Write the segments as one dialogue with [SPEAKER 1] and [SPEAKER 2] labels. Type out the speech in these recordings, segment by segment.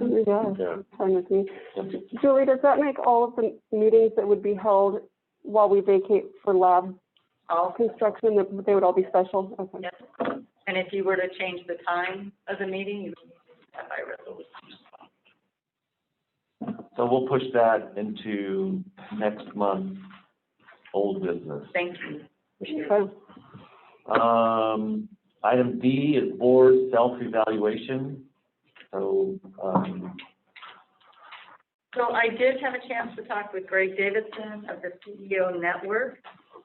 [SPEAKER 1] Yeah,
[SPEAKER 2] fine with me. Julie, does that make all of the meetings that would be held while we vacate for lab
[SPEAKER 3] all,
[SPEAKER 2] construction, that they would all be special? Okay.
[SPEAKER 3] Yep. and if you were to change the time of the meeting, you would need that by resolution.
[SPEAKER 1] so we'll push that into next month's old business.
[SPEAKER 3] Thank you.
[SPEAKER 2] Okay.
[SPEAKER 1] Um, item D is board self-evaluation. So, um,
[SPEAKER 3] So I did have a chance to talk with Greg Davidson of the CEO Network.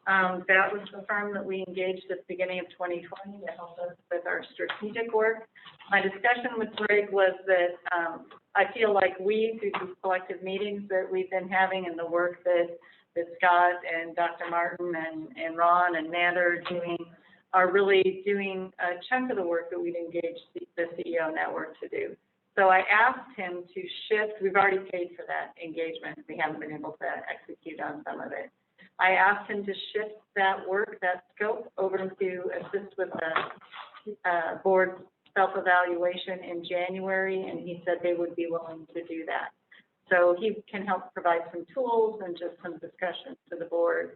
[SPEAKER 3] Um, that was the firm that we engaged at the beginning of 2020 to help us with our strategic work. My discussion with Greg was that, um, I feel like we, through these collective meetings that we've been having and the work that, that Scott and Dr. Martin and, and Ron and Matt are doing, are really doing a chunk of the work that we'd engaged the- the CEO Network to do. So I asked him to shift, we've already paid for that engagement, we haven't been able to execute on some of it. I asked him to shift that work, that scope, over to assist with the, uh, board self-evaluation in January, and he said they would be willing to do that. So he can help provide some tools and just some discussion to the board.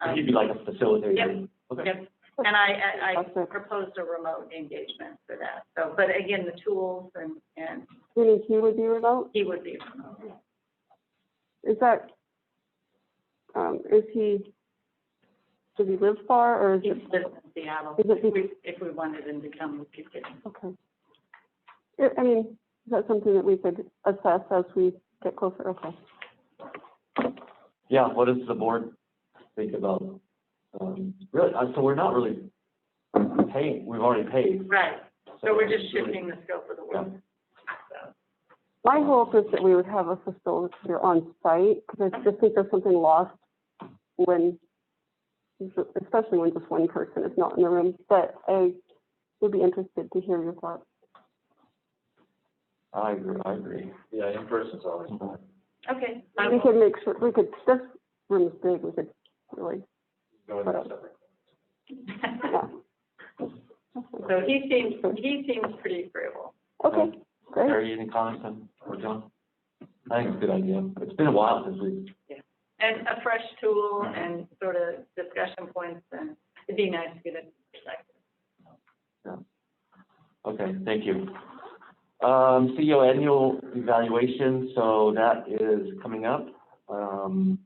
[SPEAKER 3] Um,
[SPEAKER 1] he'd be like a facilitator.
[SPEAKER 3] Yep.
[SPEAKER 1] Okay.
[SPEAKER 3] Yep, and I, I, I
[SPEAKER 2] Awesome.
[SPEAKER 3] proposed a remote engagement for that, so, but again, the tools and, and
[SPEAKER 2] Meaning he would be remote?
[SPEAKER 3] he would be remote.
[SPEAKER 2] Is that, um, is he, does he live far or is
[SPEAKER 3] He
[SPEAKER 2] it,
[SPEAKER 3] lives in Seattle.
[SPEAKER 2] Is it-
[SPEAKER 3] If we- If we wanted him to come, we could get him.
[SPEAKER 2] okay. I- I mean, is that something that we could assess as we get closer? Okay.
[SPEAKER 1] Yeah, what does the board think about, um, really, uh, so we're not really paying, we've already paid.
[SPEAKER 3] Right, so we're just
[SPEAKER 1] it's really-
[SPEAKER 3] shifting the scope of the work. So,
[SPEAKER 2] My hope is that we would have a facilitator on site, because I just think there's something lost when, especially when just one person is not in the room, but I would be interested to hear your thoughts.
[SPEAKER 1] I agree, I agree.
[SPEAKER 4] Yeah, in person's always better.
[SPEAKER 3] Okay. I
[SPEAKER 2] We
[SPEAKER 3] will-
[SPEAKER 2] could make sure, we could, this room is big, we could really,
[SPEAKER 4] Go with that separate.
[SPEAKER 2] yeah.
[SPEAKER 3] So he seems, he seems pretty agreeable.
[SPEAKER 2] Okay, great.
[SPEAKER 1] Terry, any comments on, or John? I think it's a good idea. It's been a while since we,
[SPEAKER 3] And a fresh tool and sort of discussion points, and it'd be nice to get a perspective.
[SPEAKER 1] okay, thank you. Um, CEO annual evaluation, so that is coming up. Um,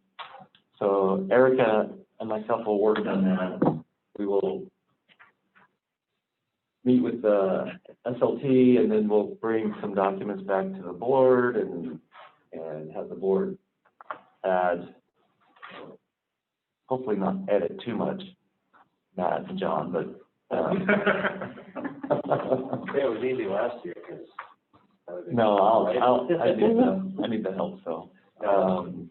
[SPEAKER 1] so Erica and myself will work on that. We will meet with the SLT and then we'll bring some documents back to the board and, and have the board add, hopefully not edit too much, Matt and John, but, um,
[SPEAKER 4] Yeah, it was easy last year, because.
[SPEAKER 1] no, I'll, I'll, I need the, I need the help, so, um,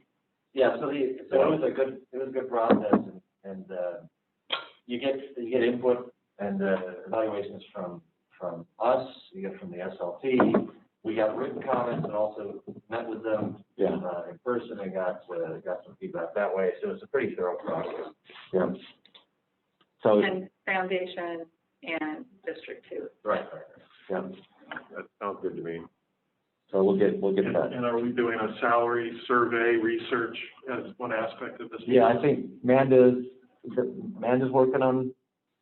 [SPEAKER 4] Yeah, so the, so it was a good, it was a good process, and, and, uh, you get, you get input and, uh, evaluations from, from us, you get from the SLT. We got written comments and also met with them,
[SPEAKER 1] yeah,
[SPEAKER 4] uh, in person and got, uh, got some feedback that way, so it's a pretty thorough process.
[SPEAKER 1] yeah. So,
[SPEAKER 3] And foundation and district two.
[SPEAKER 4] Right, right.
[SPEAKER 1] yeah,
[SPEAKER 5] That sounds good to me.
[SPEAKER 1] so we'll get, we'll get
[SPEAKER 5] And
[SPEAKER 1] that.
[SPEAKER 5] and are we doing a salary survey research as one aspect of this?
[SPEAKER 1] Yeah, I think Manda's, Manda's working on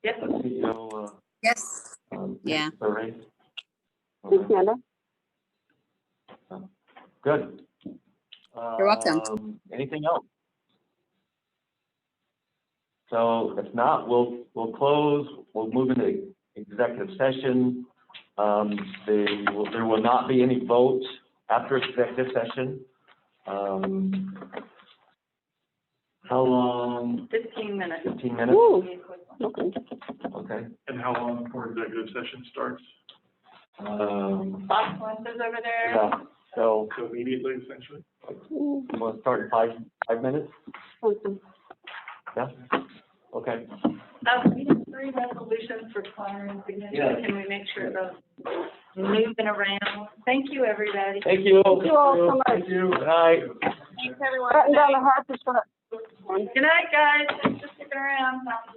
[SPEAKER 3] Yes,
[SPEAKER 1] the CEO,
[SPEAKER 6] Yes,
[SPEAKER 1] uh, um,
[SPEAKER 6] Yeah.
[SPEAKER 1] survey.
[SPEAKER 2] Thanks, Amanda.
[SPEAKER 1] Good. You're
[SPEAKER 6] welcome.
[SPEAKER 1] Anything else? So if not, we'll, we'll close, we'll move into executive session. Um, they will- there will not be any vote after executive session. Um, how long?
[SPEAKER 3] fifteen minutes.
[SPEAKER 1] Fifteen minutes?
[SPEAKER 2] Woo, okay.
[SPEAKER 1] Okay.
[SPEAKER 5] And how long before executive session starts?
[SPEAKER 1] Um,
[SPEAKER 3] Boss lunches over there.
[SPEAKER 1] yeah, so
[SPEAKER 5] So immediately, essentially?
[SPEAKER 2] Mm,
[SPEAKER 1] we'll start in five, five minutes?
[SPEAKER 2] awesome.
[SPEAKER 1] Yeah? Okay.
[SPEAKER 3] Um, we have three resolutions for Clarence signature.
[SPEAKER 4] Yeah.
[SPEAKER 3] Can we make sure those moving around? Thank you, everybody.
[SPEAKER 1] Thank you.
[SPEAKER 2] Thank you all so much.
[SPEAKER 1] Thank you. Good night.
[SPEAKER 3] Thanks, everyone.
[SPEAKER 2] Batten down the hard to shut up.
[SPEAKER 3] Good night, guys. Thanks for sticking around.